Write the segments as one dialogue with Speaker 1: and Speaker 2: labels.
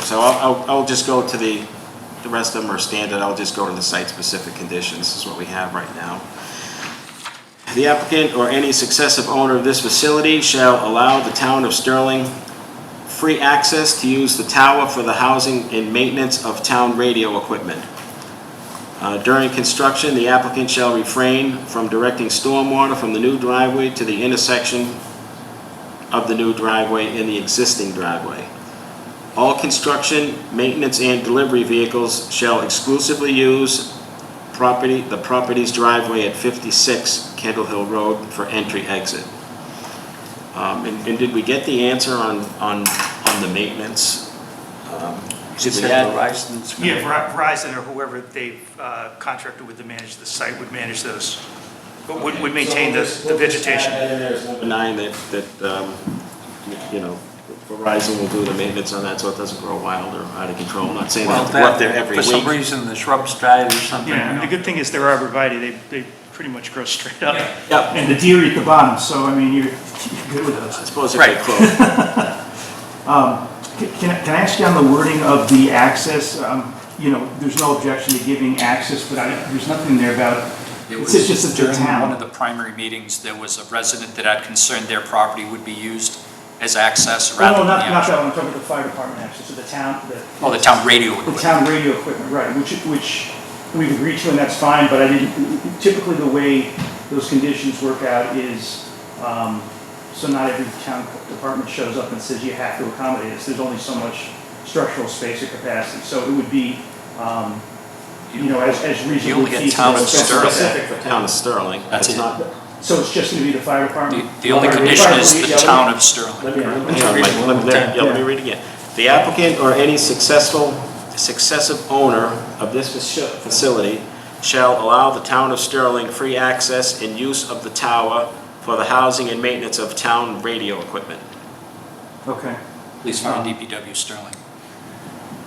Speaker 1: so I'll, I'll- I'll just go to the, the rest of them are standard, I'll just go to the site-specific conditions, This is what we have right now. The applicant or any successive owner of this facility shall allow the town of Sterling free access to use the tower for the housing and maintenance of town radio equipment. Uh, During construction, the applicant shall refrain from directing stormwater from the new driveway to the intersection of the new driveway and the existing driveway. All construction, maintenance, and delivery vehicles shall exclusively use property, the property's driveway at 56 Kendall Hill Road for entry/exit. Um, And and did we get the answer on, on, on the maintenance? Um,
Speaker 2: Just
Speaker 1: did we
Speaker 2: have
Speaker 1: add-
Speaker 2: Verizon's-
Speaker 3: Yeah, Ver- Verizon or whoever they've uh, contracted with to manage the site would manage those, but would would maintain the the vegetation.
Speaker 1: Number nine, that, that, um, you know, Verizon will do the maintenance on that, so it doesn't grow wild or out of control. I'm not saying they
Speaker 2: Well,
Speaker 1: have to go up there
Speaker 2: that-
Speaker 1: every
Speaker 2: For some
Speaker 1: week.
Speaker 2: reason, the shrubs died or something.
Speaker 3: Yeah, and the good thing is they're arborvitae, they, they pretty much grow straight up.
Speaker 1: Yep.
Speaker 3: And the deer eat the bottom, so I mean, you're, you're good with
Speaker 1: I
Speaker 3: those.
Speaker 1: suppose if they
Speaker 2: Right.
Speaker 1: close,
Speaker 4: Can can I can I ask you on the wording of the access? Um, You know, there's no objection to giving access, but I, there's nothing there about,
Speaker 5: It
Speaker 4: it's
Speaker 5: was
Speaker 4: just that the
Speaker 5: during one
Speaker 4: town.
Speaker 5: of the primary meetings, there was a resident that had concern their property would be used as access
Speaker 4: Oh,
Speaker 5: rather
Speaker 4: no,
Speaker 5: than the
Speaker 4: not, not
Speaker 5: actual.
Speaker 4: that one, I'm talking about the fire department access, so the town, the,
Speaker 5: Oh, the town radio
Speaker 4: the
Speaker 5: equipment.
Speaker 4: town radio equipment, right, which, which we've agreed to and that's fine, but I didn't, typically the way those conditions work out is, um, so not every town department shows up and says you have to accommodate us. There's only so much structural space or capacity, so it would be, um, you know, as, as reasonably.
Speaker 5: You only get
Speaker 4: feasible,
Speaker 5: town of
Speaker 4: especially-
Speaker 5: Sterling.
Speaker 1: the town of Sterling,
Speaker 5: That's
Speaker 1: it's
Speaker 5: it.
Speaker 1: not.
Speaker 4: So it's just gonna be the fire
Speaker 5: The
Speaker 4: department?
Speaker 5: the only
Speaker 4: Fire-
Speaker 5: condition
Speaker 4: fire
Speaker 5: is
Speaker 4: police,
Speaker 5: the
Speaker 4: yeah,
Speaker 5: town of
Speaker 4: Let
Speaker 5: Sterling.
Speaker 4: me, let me-
Speaker 1: Hang on, Mike, let me- let me- yeah, let me
Speaker 4: Yeah.
Speaker 1: read it again. The applicant or any successful, successive owner of this faci- facility shall allow the town of Sterling free access and use of the tower for the housing and maintenance of town radio equipment.
Speaker 4: Okay.
Speaker 5: Police, fire, DPW, Sterling.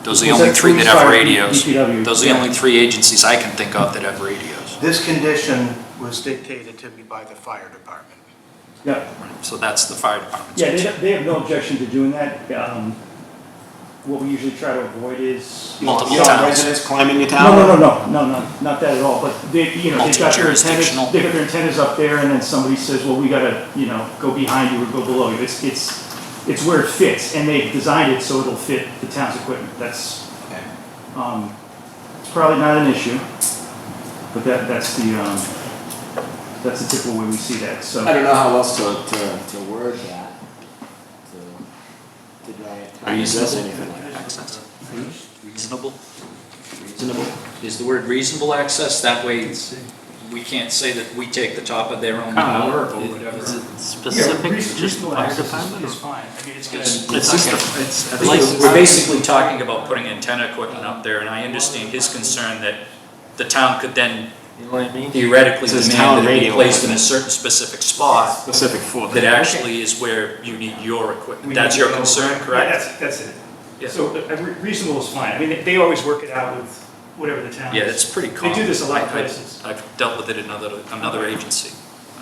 Speaker 5: Those are the
Speaker 4: Was
Speaker 5: only
Speaker 4: that
Speaker 5: three that
Speaker 4: police,
Speaker 5: have
Speaker 4: fire,
Speaker 5: radios.
Speaker 4: DPW?
Speaker 5: Those are the
Speaker 4: Yeah.
Speaker 5: only three agencies I can think of that have radios.
Speaker 6: This condition was dictated to me by the fire department.
Speaker 4: Yeah,
Speaker 5: So that's the fire department's
Speaker 4: yeah, they,
Speaker 5: concern.
Speaker 4: they have no objection to doing that. Um, What we usually try to avoid is. you know,
Speaker 5: Multiple
Speaker 4: some
Speaker 5: towns.
Speaker 4: residents-
Speaker 1: Residents climbing the
Speaker 4: No,
Speaker 1: tower?
Speaker 4: no, no, no, no, no, not that at all, but they, you know, they've got their
Speaker 5: Multi-jurisdictional.
Speaker 4: antennas, they've got their antennas up there, and then somebody says, well, we gotta, you know, go behind you or go below you, it's, it's, it's where it fits, and they've designed it so it'll fit the town's equipment, that's, um, it's probably not an issue, but that, that's the, um, that's the typical way we see that, so.
Speaker 7: I don't know how else to, to, to word that. To- to deny it.
Speaker 1: Are you suggesting anything?
Speaker 5: Access. Reasonable? Reasonable. Is the word reasonable access? That way, we can't say that we take the top of their own hour or
Speaker 2: Is
Speaker 5: whatever.
Speaker 2: it specific to just the
Speaker 6: Reasonable
Speaker 2: fire
Speaker 6: access is-
Speaker 2: department?
Speaker 6: Is fine, I mean, it's gonna.
Speaker 5: It's-
Speaker 1: It's just, a- it's, I think
Speaker 2: License.
Speaker 1: it's-
Speaker 5: We're basically talking about putting antenna equipment up there, and I understand his concern that the town could then
Speaker 2: You know what I mean?
Speaker 5: theoretically
Speaker 1: It says town
Speaker 5: demand that it be
Speaker 1: radio.
Speaker 5: placed in a certain specific spot
Speaker 1: specific for
Speaker 5: that
Speaker 1: that.
Speaker 5: actually is where you need your equipment.
Speaker 3: We
Speaker 5: That's
Speaker 3: need to
Speaker 5: your
Speaker 3: go-
Speaker 5: concern,
Speaker 3: Yeah,
Speaker 5: correct?
Speaker 3: That's, that's it.
Speaker 5: Yeah.
Speaker 3: So uh, re- reasonable is fine. I mean, they- they always work it out with whatever the town is.
Speaker 5: Yeah, it's pretty common.
Speaker 3: They do this a lot of
Speaker 5: I- I-
Speaker 3: places.
Speaker 5: I've dealt with it in another, another agency.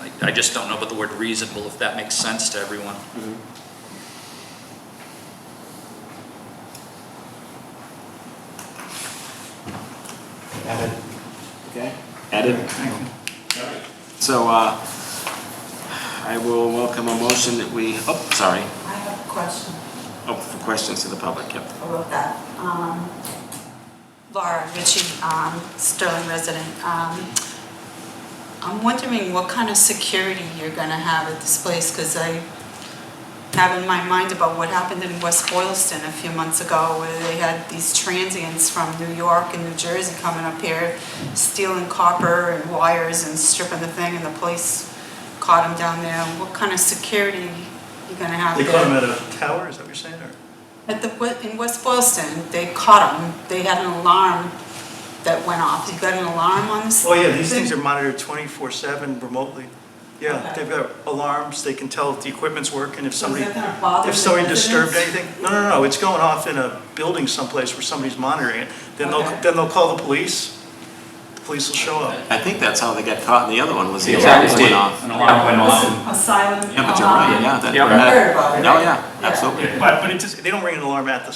Speaker 5: I, I just don't know about the word reasonable, if that makes sense to everyone.
Speaker 7: Okay?
Speaker 1: Added. So, uh, I will welcome a motion that we, oh, sorry,
Speaker 8: I have a question
Speaker 1: oh, for questions to the public, yep.
Speaker 8: about that. Um, Laura Ritchie, um, Sterling resident. Um, I'm wondering what kind of security you're going to have at this place, because I have in my mind about what happened in West Boylston a few months ago, where they had these transients from New York and New Jersey coming up here, stealing copper and wires and stripping the thing, and the police caught them down there. What kind of security you going to have
Speaker 3: They
Speaker 8: there?
Speaker 3: call them at a tower, is that what you're saying, or?
Speaker 8: At the, we- in West Boylston, they caught them, they had an alarm that went off, you got an alarm on this?
Speaker 3: Oh, yeah, these things are
Speaker 8: thing?
Speaker 3: monitored 24/7 remotely. Yeah,
Speaker 8: Okay.
Speaker 3: they've got alarms, they can tell if the equipment's working, if
Speaker 8: So
Speaker 3: somebody,
Speaker 8: is that gonna bother
Speaker 3: if
Speaker 8: the
Speaker 3: somebody disturbed
Speaker 8: residents?
Speaker 3: anything. No, no, no, it's going off in a building someplace where somebody's monitoring it. Then they'll,
Speaker 8: Okay.
Speaker 3: then they'll call the police, the police will show up.
Speaker 1: I think that's how they got caught in the other one, was the alarm
Speaker 5: Exactly.
Speaker 1: went off.
Speaker 5: An alarm went off.
Speaker 8: A silent
Speaker 1: Yeah, but you're right,
Speaker 8: alarm.
Speaker 1: yeah, that,
Speaker 5: Yeah.
Speaker 8: I heard about it.
Speaker 1: no, yeah, absolutely.
Speaker 3: But, but it just, they don't ring an alarm at the